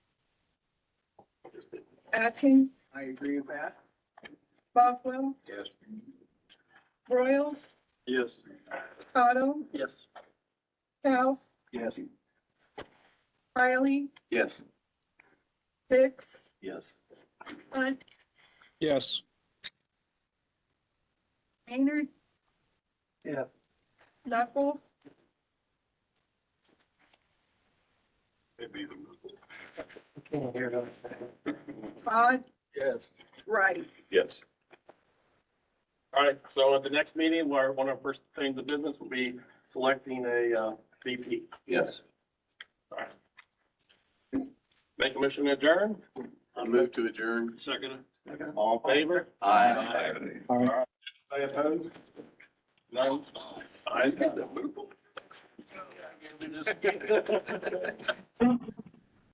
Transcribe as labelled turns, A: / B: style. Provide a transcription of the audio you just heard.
A: Atkins,
B: I agree with that.
A: Boswell,
C: Yes.
A: Royals,
C: Yes.
A: Cottle,
C: Yes.
A: House,
C: Yes.
A: Riley,
C: Yes.
A: Hicks,
C: Yes.
A: Hunt,
D: yes,
A: Maynard,
C: Yes.
A: Knuckles, Todd,
C: Yes.
A: Wright.
C: Yes.
E: All right, so at the next meeting, where one of our first things of business will be selecting a uh, VP.
C: Yes.
E: Make a motion to adjourn,
C: I move to adjourn.
E: second, all in favor,
C: Aye.
E: any opposed? None, ayes have it.